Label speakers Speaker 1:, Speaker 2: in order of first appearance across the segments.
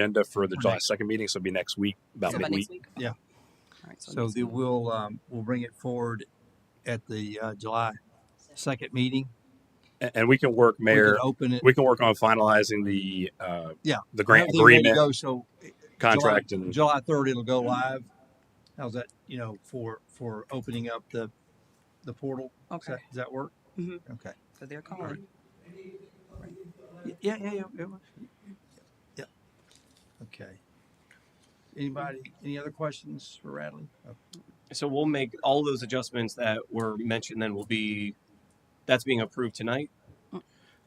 Speaker 1: agenda for the
Speaker 2: For
Speaker 1: July
Speaker 2: next-
Speaker 1: second meeting, so it'll be next week, about
Speaker 3: So by next
Speaker 1: midweek.
Speaker 3: week?
Speaker 2: Yeah.
Speaker 3: All right,
Speaker 2: So
Speaker 3: next
Speaker 2: they
Speaker 3: week.
Speaker 2: will, um, we'll bring it forward at the, uh, July second meeting.
Speaker 1: A- And we can work,
Speaker 2: We can
Speaker 1: Mayor,
Speaker 2: Open it.
Speaker 1: we can work on finalizing the, uh,
Speaker 2: Yeah.
Speaker 1: the grant
Speaker 2: Everything ready to
Speaker 1: agreement
Speaker 2: Go, so
Speaker 1: contract and,
Speaker 2: July third, it'll go live. How's that, you know, for, for opening up the, the portal? Does
Speaker 3: Okay,
Speaker 2: that, does that work?
Speaker 3: Mhm.
Speaker 2: Okay.
Speaker 3: so they're calling.
Speaker 2: Yeah, yeah, yeah. yeah. Yeah. Okay. Anybody, any other questions for Radley?
Speaker 4: So we'll make all those adjustments that were mentioned. Then will be that's being approved tonight.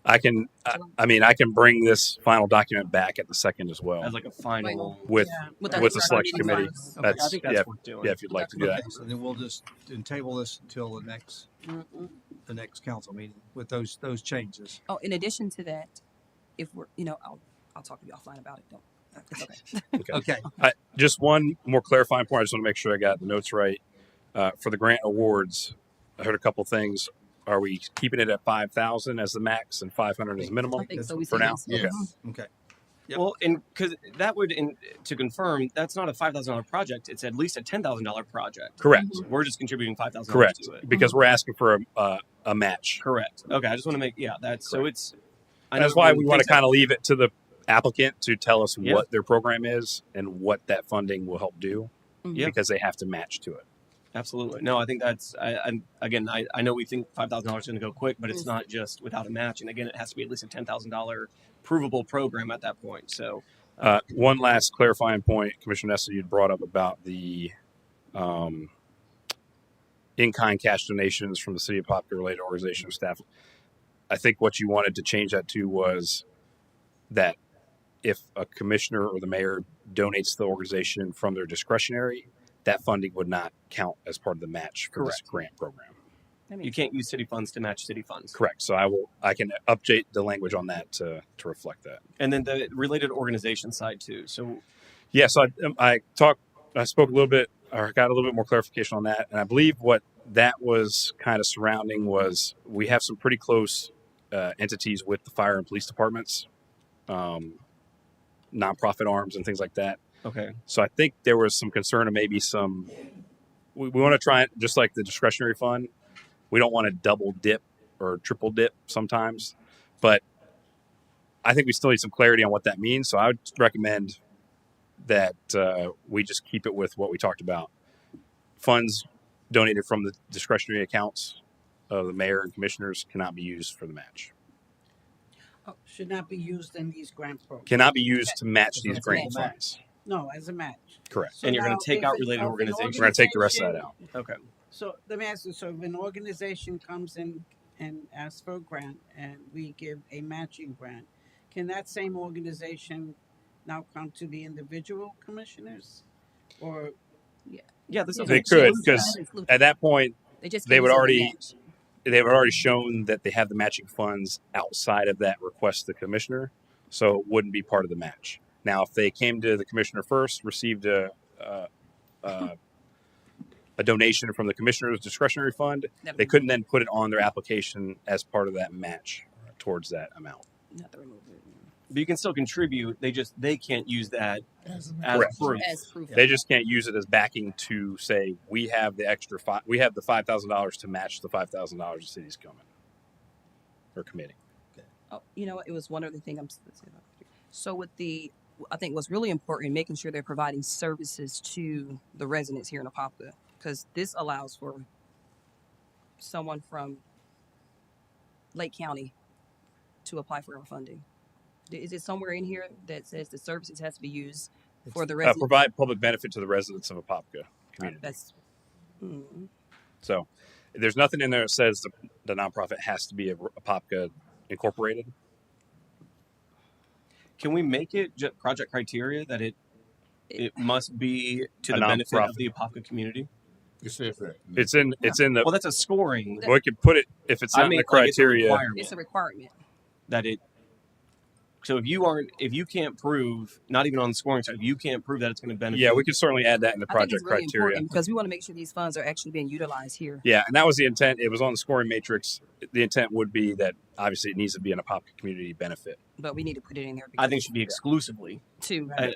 Speaker 1: I can, I, I mean, I can bring this final document back at the second as well.
Speaker 4: as like a final.
Speaker 1: With,
Speaker 3: our
Speaker 1: with the
Speaker 3: draft
Speaker 1: selection
Speaker 3: meeting
Speaker 1: committee.
Speaker 3: files.
Speaker 4: Okay, I
Speaker 1: that's,
Speaker 4: think that's
Speaker 1: yeah,
Speaker 4: worth doing.
Speaker 1: yeah, if you'd like to do
Speaker 2: Okay,
Speaker 1: that.
Speaker 2: so then we'll just then table this until the next,
Speaker 3: Mhm.
Speaker 2: the next council meeting with those, those changes.
Speaker 3: Oh, in addition to that, if we're, you know, I'll, I'll talk to you offline about it. Don't. it's okay.
Speaker 2: Okay,
Speaker 1: Just one more clarifying point. I just want to make sure I got the notes right. Uh, for the grant awards, I heard a couple things. Are we keeping it at five thousand as the max and five hundred as minimum?
Speaker 3: I think so. We
Speaker 1: For
Speaker 3: said
Speaker 1: now?
Speaker 3: yes.
Speaker 1: Okay.
Speaker 3: Mhm.
Speaker 2: okay. Yep.
Speaker 4: Well, and because that would, in, to confirm, that's not a five thousand dollar project. It's at least a ten thousand dollar project.
Speaker 1: Correct,
Speaker 4: We're just contributing five thousand dollars
Speaker 1: correct.
Speaker 4: to it.
Speaker 1: Because we're asking for a, uh, a match.
Speaker 4: Correct. Okay, I just want to make yeah. That's so it's. I
Speaker 1: And that's
Speaker 4: know
Speaker 1: why
Speaker 4: when
Speaker 1: we want to
Speaker 4: things happen-
Speaker 1: kind of leave it to the applicant to tell us
Speaker 4: Yeah.
Speaker 1: what their program is and what that funding will help do.
Speaker 3: Mhm.
Speaker 4: Yeah.
Speaker 1: Because they have to match to it.
Speaker 4: Absolutely. No, I think that's I, I'm again. I, I know we think five thousand dollars is going to go quick, but it's not just without a match. And again, it has to be at least a ten thousand dollar provable program at that point. So
Speaker 1: Uh, one last clarifying point, Commissioner Nessa, you'd brought up about the um, in-kind cash donations from the city of Poplar related organization of staff. I think what you wanted to change that to was that if a commissioner or the mayor donates to the organization from their discretionary, that funding would not count as part of the match for this grant program.
Speaker 3: That
Speaker 4: you
Speaker 3: makes
Speaker 4: can't use city funds to match city funds.
Speaker 1: Correct. So I will, I can update the language on that to, to reflect that.
Speaker 4: And then the related organization side too. So
Speaker 1: Yeah, so I, um, I talked, I spoke a little bit, or got a little bit more clarification on that, and I believe what that was kind of surrounding was we have some pretty close uh, entities with the fire and police departments, um, nonprofit arms, and things like that.
Speaker 4: okay,
Speaker 1: So I think there was some concern of maybe some. We, we want to try it just like the discretionary fund. We don't want to double dip or triple dip sometimes, but I think we still need some clarity on what that means. So I would recommend that uh, we just keep it with what we talked about: funds donated from the discretionary accounts of the mayor and commissioners cannot be used for the match.
Speaker 5: Oh, Should not be used in these grant programs.
Speaker 1: Cannot be used to match these
Speaker 2: That's
Speaker 1: grant
Speaker 2: a match.
Speaker 1: funds.
Speaker 5: No, as a match.
Speaker 1: Correct.
Speaker 5: So
Speaker 4: And you're gonna
Speaker 5: now
Speaker 4: take
Speaker 5: if
Speaker 4: out
Speaker 5: it-
Speaker 4: related
Speaker 5: of an
Speaker 4: organizations.
Speaker 1: We're going to take the rest of that out.
Speaker 4: okay.
Speaker 5: So let me ask you, so if an organization comes in and asks for a grant and we give a matching grant, can that same organization now come to the individual commissioners? Or,
Speaker 4: Yeah, this
Speaker 3: sense.
Speaker 4: is
Speaker 1: They
Speaker 3: Yeah.
Speaker 1: could,
Speaker 3: Include-
Speaker 1: 'cause
Speaker 3: include-
Speaker 1: At that point,
Speaker 3: They just
Speaker 1: they
Speaker 3: can't
Speaker 1: would
Speaker 3: use it to
Speaker 1: already-
Speaker 3: match.
Speaker 1: they've already shown that they have the matching funds outside of that request to the commissioner, so it wouldn't be part of the match. Now, if they came to the commissioner first, received a uh, uh, a donation from the commissioner's discretionary fund,
Speaker 3: That'd
Speaker 1: they
Speaker 3: be-
Speaker 1: couldn't then put it on their application as part of that match towards that amount.
Speaker 3: not to remove it.
Speaker 4: But you can still contribute. They just they can't use that as
Speaker 1: Correct.
Speaker 4: proof.
Speaker 3: As proof.
Speaker 1: They just can't use it as backing to say we have the extra five, we have the five thousand dollars to match the five thousand dollars the city's coming or committing.
Speaker 3: Oh, you know, what? it was one other thing I'm. s- let's see if I can- So with the, I think what's really important, making sure they're providing services to the residents here in Apopka, because this allows for someone from Lake County to apply for our funding. D- Is it somewhere in here that says the services has to be used for the
Speaker 1: Uh,
Speaker 3: residents?
Speaker 1: provide public benefit to the residents of Apopka community.
Speaker 3: That's. Mm,
Speaker 1: So there's nothing in there that says the, the nonprofit has to be a, a POPCA incorporated.
Speaker 4: Can we make it ju- project criteria that it it must be to
Speaker 1: A
Speaker 4: the benefit
Speaker 1: nonprofit.
Speaker 4: of the Apopka community?
Speaker 6: You said that.
Speaker 1: It's in it's in the
Speaker 4: Well, that's a scoring.
Speaker 1: we could put it if it's not
Speaker 4: I mean,
Speaker 1: in the
Speaker 4: like, it's a
Speaker 1: criteria.
Speaker 4: requirement
Speaker 3: it's a requirement.
Speaker 4: that it So if you aren't, if you can't prove, not even on the scoring side, if you can't prove that it's going to benefit.
Speaker 1: Yeah, we could certainly add that in the
Speaker 3: I think
Speaker 1: project
Speaker 3: it's really
Speaker 1: criteria.
Speaker 3: important because we want to make sure these funds are actually being utilized here.
Speaker 1: Yeah, and that was the intent. It was on the scoring matrix. The intent would be that obviously it needs to be an Apopka community benefit.
Speaker 3: But we need to put it in there.
Speaker 4: I think it should be exclusively
Speaker 3: because- too.
Speaker 4: I-